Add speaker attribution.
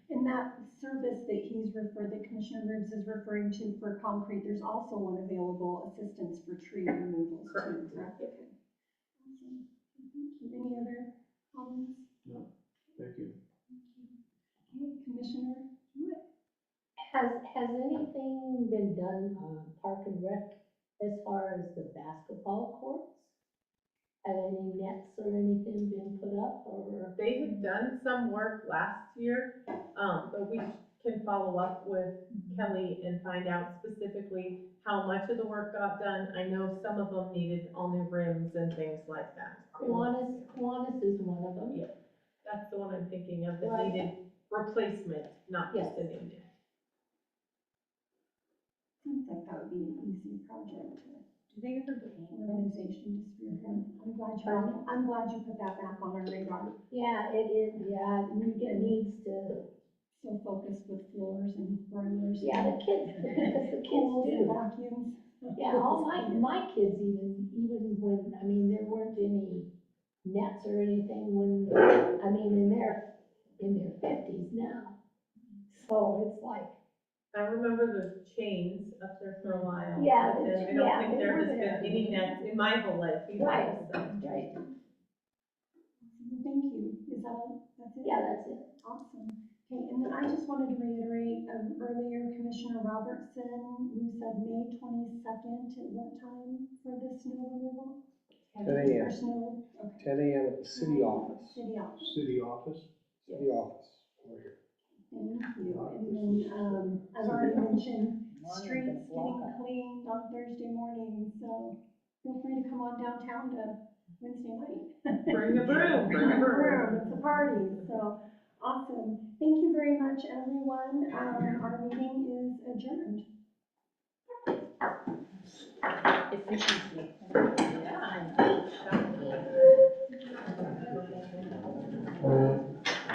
Speaker 1: that service that he's referred, that Commissioner Reeves is referring to for concrete, there's also one available, assistance for tree removals too,
Speaker 2: Correct.
Speaker 1: correct? Okay. Awesome. Thank you. Any other comments?
Speaker 3: Thank you.
Speaker 1: Thank you. Okay, Commissioner Hewitt?
Speaker 4: Has, has anything been done on Park and Rec as far as the basketball courts? Have any nets or anything been put up or?
Speaker 2: They had done some work last year, um, but we can follow up with Kelly and find out specifically how much of the work got done. I know some of them needed all new rims and things like that.
Speaker 4: Kiwanis, Kiwanis is one of them.
Speaker 2: Yeah. That's the one I'm thinking of, that
Speaker 4: Right.
Speaker 2: needed replacement, not just a new net.
Speaker 1: Seems like that would be an easy project to
Speaker 5: Do they ever get any?
Speaker 1: organization to spearhead. I'm glad you, brought- I'm glad you put that back on our radar.
Speaker 4: Yeah, it is, yeah, it needs to,
Speaker 1: So focused with floors and boilers.
Speaker 4: yeah, the kids, because the kids
Speaker 1: Pools and
Speaker 4: do.
Speaker 1: vacuums.
Speaker 4: Yeah, all my, my kids even, even when, I mean, there weren't any nets or anything when, I mean, in their, in their fifties now. So it's like,
Speaker 2: I remember the chains up there for a while.
Speaker 4: Yeah,
Speaker 2: but
Speaker 4: the
Speaker 2: then
Speaker 4: ch-
Speaker 2: I don't
Speaker 4: yeah,
Speaker 2: think
Speaker 4: they
Speaker 2: there
Speaker 4: were
Speaker 2: has been
Speaker 4: there.
Speaker 2: any nets in my whole life either,
Speaker 4: Right.
Speaker 2: so.
Speaker 4: right,
Speaker 1: Thank you. Is that all? That's it?
Speaker 4: yeah, that's it.
Speaker 1: Awesome. Okay, and then I just wanted to reiterate, um, earlier Commissioner Robertson, you said May twenty-second, at what time for the snow removal?
Speaker 3: 10 a.m.
Speaker 1: Or snow, okay.
Speaker 6: ten AM at the city office,
Speaker 1: City office.
Speaker 3: City office?
Speaker 6: city office, over here.
Speaker 1: Thank you. And then, um, I've already mentioned streets getting cleaned on Thursday morning, so feel free to come on downtown to Wednesday night.
Speaker 2: Bring the broom, bring the broom.
Speaker 1: Room, It's a party, so awesome. Thank you very much, everyone. Um, our meeting is adjourned.
Speaker 5: Efficiency.